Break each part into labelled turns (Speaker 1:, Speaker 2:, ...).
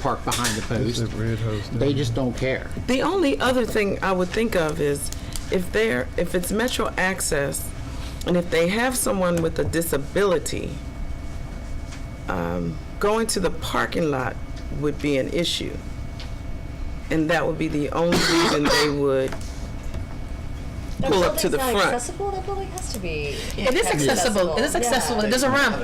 Speaker 1: park behind the post.
Speaker 2: that red house down
Speaker 1: They just don't care.
Speaker 3: The only other thing I would think of is if they're, if it's Metro Access and if they have someone with a disability, um, going to the parking lot would be an issue. And that would be the only reason they would pull up to the
Speaker 4: If something's not
Speaker 3: front.
Speaker 4: accessible, that building has to be.
Speaker 5: It is accessible. It is accessible. There's a ramp.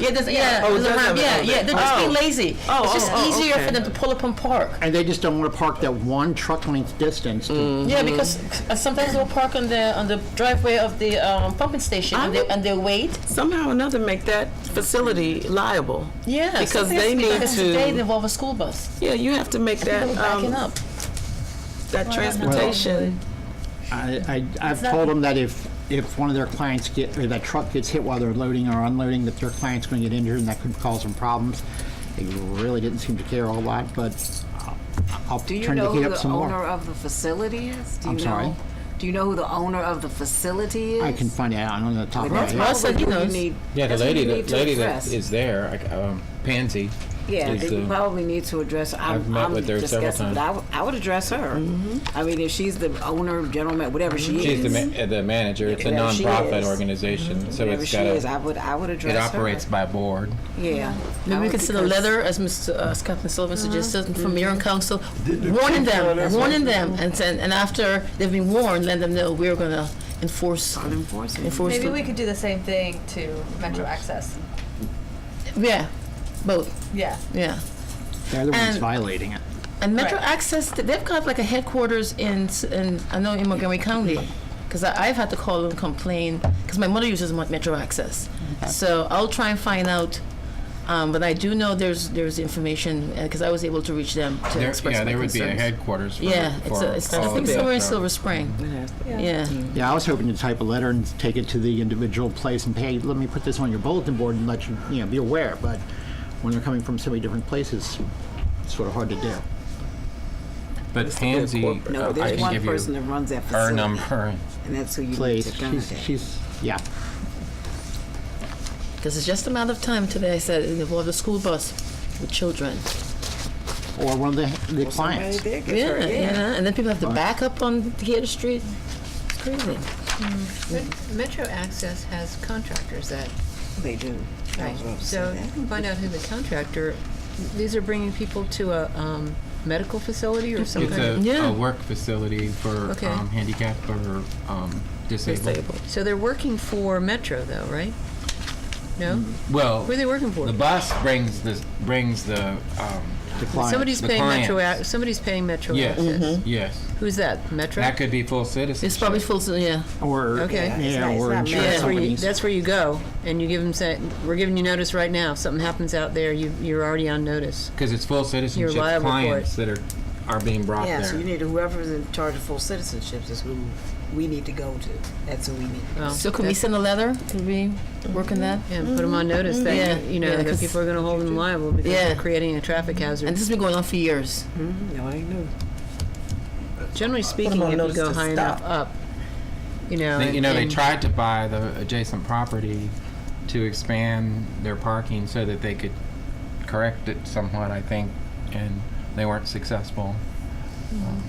Speaker 5: Yeah, there's yeah,
Speaker 3: Oh, it
Speaker 5: there's
Speaker 3: does
Speaker 5: a
Speaker 3: have
Speaker 5: ramp.
Speaker 3: an
Speaker 5: Yeah,
Speaker 3: elevator.
Speaker 5: yeah. They're just being
Speaker 3: Oh.
Speaker 5: lazy.
Speaker 3: Oh,
Speaker 5: it's just
Speaker 3: oh, oh,
Speaker 5: easier
Speaker 3: okay.
Speaker 5: for them to pull up and park.
Speaker 1: And they just don't want to park that one truck length distance.
Speaker 3: Mm-hmm.
Speaker 1: to-
Speaker 5: Yeah, because uh, sometimes they'll park on the on the driveway of the um, pumping station and
Speaker 3: Ah.
Speaker 5: they, and they wait.
Speaker 3: Somehow or another make that facility liable.
Speaker 5: Yeah,
Speaker 3: Because they need
Speaker 5: because Today they
Speaker 3: to,
Speaker 5: involve a school bus.
Speaker 3: yeah, you have to make that,
Speaker 5: People backing
Speaker 3: um,
Speaker 5: up.
Speaker 3: that transportation.
Speaker 1: I, I, I've told them that if, if one of their clients get, or that truck gets hit while they're loading or unloading, that their client's going to get injured and that could cause them problems. They really didn't seem to care a whole lot, but I'll- I'll
Speaker 6: Do you
Speaker 1: turn the
Speaker 6: know
Speaker 1: heat
Speaker 6: who
Speaker 1: up
Speaker 6: the
Speaker 1: some
Speaker 6: owner
Speaker 1: more.
Speaker 6: of the facility is? Do you
Speaker 1: I'm sorry?
Speaker 6: know- Do you know who the owner of the facility is?
Speaker 1: I can find out, I don't know the top of my
Speaker 6: That's
Speaker 1: head.
Speaker 5: Russell, he
Speaker 6: probably who you
Speaker 5: knows.
Speaker 6: need.
Speaker 7: Yeah, the
Speaker 6: that's who
Speaker 7: lady,
Speaker 6: you
Speaker 7: that
Speaker 6: need to
Speaker 7: lady that
Speaker 6: address.
Speaker 7: is there, I c- um, Pansy.
Speaker 6: Yeah,
Speaker 7: is
Speaker 6: that you
Speaker 7: the-
Speaker 6: probably need to address. I'm-
Speaker 7: I've met
Speaker 6: I'm
Speaker 7: with her
Speaker 6: just
Speaker 7: several
Speaker 6: guessing,
Speaker 7: times.
Speaker 6: but I w- I would address her. I mean, if she's the owner, gentleman, whatever she
Speaker 7: She's the
Speaker 6: is,
Speaker 7: ma- uh, the manager. It's a
Speaker 6: Whatever she
Speaker 7: nonprofit
Speaker 6: is.
Speaker 7: organization, so
Speaker 6: whatever
Speaker 7: it's
Speaker 6: she
Speaker 7: got
Speaker 6: is, I
Speaker 7: a,
Speaker 6: would, I would address
Speaker 7: it
Speaker 6: her.
Speaker 7: operates by board.
Speaker 6: Yeah. I
Speaker 5: Maybe we
Speaker 6: would
Speaker 5: could send a
Speaker 6: because-
Speaker 5: letter, as Mr. Uh, Captain Sullivan
Speaker 3: Ah.
Speaker 5: suggested,
Speaker 3: Mm-hmm.
Speaker 5: from Mayor and Council, warning them, warning them, and then, and after they've been warned, let them know we're gonna enforce, enforce.
Speaker 8: Maybe
Speaker 5: the-
Speaker 8: we could do the same thing to Metro Access.
Speaker 5: Yeah, both,
Speaker 8: Yeah.
Speaker 5: yeah.
Speaker 1: They're the ones
Speaker 5: And-
Speaker 1: violating it.
Speaker 5: And Metro
Speaker 8: Right.
Speaker 5: Access, th- they've got like a headquarters in, s- in I know in Montgomery County, because I've had to call and complain, because my mother uses Mon- Metro Access. So I'll try and find out, um, but I do know there's there's information because I was able to reach them to
Speaker 7: There,
Speaker 5: express
Speaker 7: yeah,
Speaker 5: my
Speaker 7: there would be a
Speaker 5: concerns.
Speaker 7: headquarters for,
Speaker 5: Yeah, it's,
Speaker 7: for
Speaker 5: a, it's
Speaker 7: all
Speaker 5: I
Speaker 7: of
Speaker 5: think
Speaker 7: that,
Speaker 5: somewhere in
Speaker 7: so-
Speaker 5: Silver Spring. Yeah.
Speaker 1: Yeah, I was hoping to type a letter and take it to the individual place and, hey, let me put this on your bulletin board and let you, you know, be aware. But when they're coming from so many different places, it's sort of hard to do.
Speaker 7: But Pansy,
Speaker 6: No,
Speaker 7: uh, I
Speaker 6: there's
Speaker 7: can
Speaker 6: one
Speaker 7: give
Speaker 6: person that
Speaker 7: you
Speaker 6: runs that
Speaker 7: her
Speaker 6: facility,
Speaker 7: number.
Speaker 6: and that's who you need
Speaker 1: Place,
Speaker 6: to
Speaker 1: she's,
Speaker 6: contact.
Speaker 1: she's, yeah.
Speaker 5: Because it's just a matter of time today, I said, it involved a school bus with children.
Speaker 1: Or one of the, the clients.
Speaker 5: Yeah, yeah. And then people have to back up on Theater Street. It's crazy.
Speaker 9: Metro Access has contractors that,
Speaker 6: They do.
Speaker 4: Oh,
Speaker 9: right, so you can find out who the contractor, these are bringing people to a um, medical facility or some
Speaker 7: It's
Speaker 9: kind of,
Speaker 7: a,
Speaker 5: Yeah.
Speaker 7: a work facility for
Speaker 9: Okay.
Speaker 7: um, handicapped or um, disabled.
Speaker 9: so they're working for Metro though, right? No?
Speaker 4: Mm-hmm.
Speaker 7: Well,
Speaker 9: Who are they working for?
Speaker 7: the bus brings the brings the um,
Speaker 1: The clients.
Speaker 9: Somebody's
Speaker 7: The
Speaker 9: paying Metro,
Speaker 7: clients.
Speaker 9: Ac- somebody's paying Metro
Speaker 7: yes,
Speaker 4: Mm-hmm.
Speaker 9: Access.
Speaker 7: yes.
Speaker 9: Who's that? Metro?
Speaker 7: That could be full citizenship.
Speaker 5: Mm-hmm. It's probably full, yeah.
Speaker 1: Or,
Speaker 9: Okay.
Speaker 6: It's
Speaker 1: yeah,
Speaker 6: not- it's
Speaker 1: or
Speaker 6: not
Speaker 1: insurance
Speaker 9: That's where, you,
Speaker 1: companies.
Speaker 9: that's where you go, and you give them say, "We're giving you notice right now. If something happens out there, you, you're already on notice."
Speaker 7: Because it's full citizenship
Speaker 9: liable for
Speaker 7: clients that are, are being brought
Speaker 6: Yeah,
Speaker 7: there.
Speaker 6: so you need whoever's in charge of full citizenships is who we need to go to. That's who we need.
Speaker 9: Well,
Speaker 5: So could we
Speaker 9: that's-
Speaker 5: send a letter? Could we work on that?
Speaker 9: and put them on notice that
Speaker 5: Yeah,
Speaker 9: you know
Speaker 5: yeah,
Speaker 9: that
Speaker 5: 'cause-
Speaker 9: people are going to hold them liable because
Speaker 5: Yeah.
Speaker 9: they're creating a traffic hazard.
Speaker 5: And this has been going on for years.
Speaker 6: No, I know.
Speaker 9: Generally speaking,
Speaker 3: on
Speaker 9: if you
Speaker 3: notice
Speaker 9: go
Speaker 3: to
Speaker 9: high enough up, you know,
Speaker 7: They, you know, they
Speaker 9: and-
Speaker 7: tried to buy the adjacent property to expand their parking so that they could correct it somewhat, I think, and they weren't successful. Um,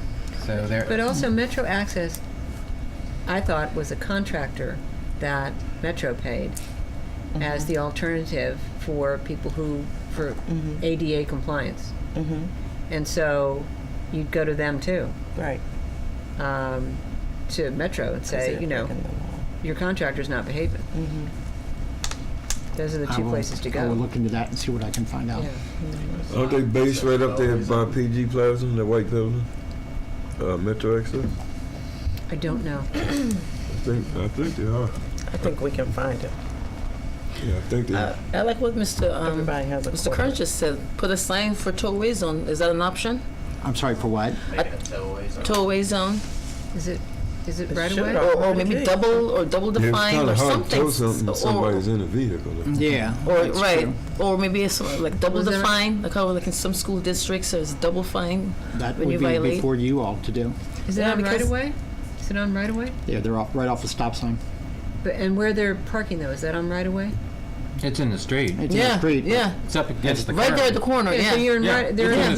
Speaker 7: So they're.
Speaker 6: uh,
Speaker 9: But also Metro Access, I thought was a contractor that Metro paid as the alternative for people who, for ADA compliance. And so you'd go to them too,
Speaker 3: Right.
Speaker 9: um, to Metro and say, you know, your contractor's not behaving. Those are the
Speaker 1: I
Speaker 9: two
Speaker 1: will-
Speaker 9: places to
Speaker 1: I will
Speaker 9: go.
Speaker 1: look into that and see what I can find out.
Speaker 9: Yeah.
Speaker 10: Aren't they based right up there by PG Plaza, the white building? Uh, Metro Access?
Speaker 9: I don't know.
Speaker 10: I think, I think they are.
Speaker 3: I think we can find it.
Speaker 10: Yeah, I think they are.
Speaker 5: I like what Mr. Um,
Speaker 3: Everybody has a
Speaker 5: Mr.
Speaker 3: quarter.
Speaker 5: Kern just said. Put a sign for tollway zone. Is that an option?
Speaker 1: I'm sorry, for what?
Speaker 5: Tollway zone,
Speaker 9: Is it, is it right
Speaker 3: should
Speaker 9: away?
Speaker 3: already
Speaker 5: or, or maybe
Speaker 3: Okay.
Speaker 5: double or double
Speaker 10: Yeah, it's
Speaker 5: define
Speaker 10: kinda
Speaker 5: or
Speaker 10: hard to
Speaker 5: something.
Speaker 10: Tell something
Speaker 5: or-
Speaker 10: if somebody's in a vehicle.
Speaker 1: Yeah.
Speaker 5: Or
Speaker 1: that's
Speaker 5: right,
Speaker 1: true.
Speaker 5: or maybe it's like double
Speaker 9: Was
Speaker 5: the
Speaker 9: there-
Speaker 5: fine, like how like in some school districts there's double fine.
Speaker 1: That
Speaker 5: when
Speaker 1: would
Speaker 5: you
Speaker 1: be
Speaker 5: violate-
Speaker 1: before you all to do.
Speaker 9: Is it
Speaker 5: Yeah,
Speaker 9: on right
Speaker 5: because-
Speaker 9: away? Is it on right away?
Speaker 1: Yeah, they're off, right off the stop sign.
Speaker 9: But, and where they're parking though, is that on right away?
Speaker 7: It's in the street.
Speaker 1: It's in the
Speaker 5: Yeah,
Speaker 1: street. but
Speaker 5: yeah,
Speaker 7: It's up against the curb.
Speaker 5: right there at the corner. Yeah,
Speaker 9: So you're in
Speaker 7: Yeah.
Speaker 9: right, they're in
Speaker 7: Yeah.
Speaker 9: the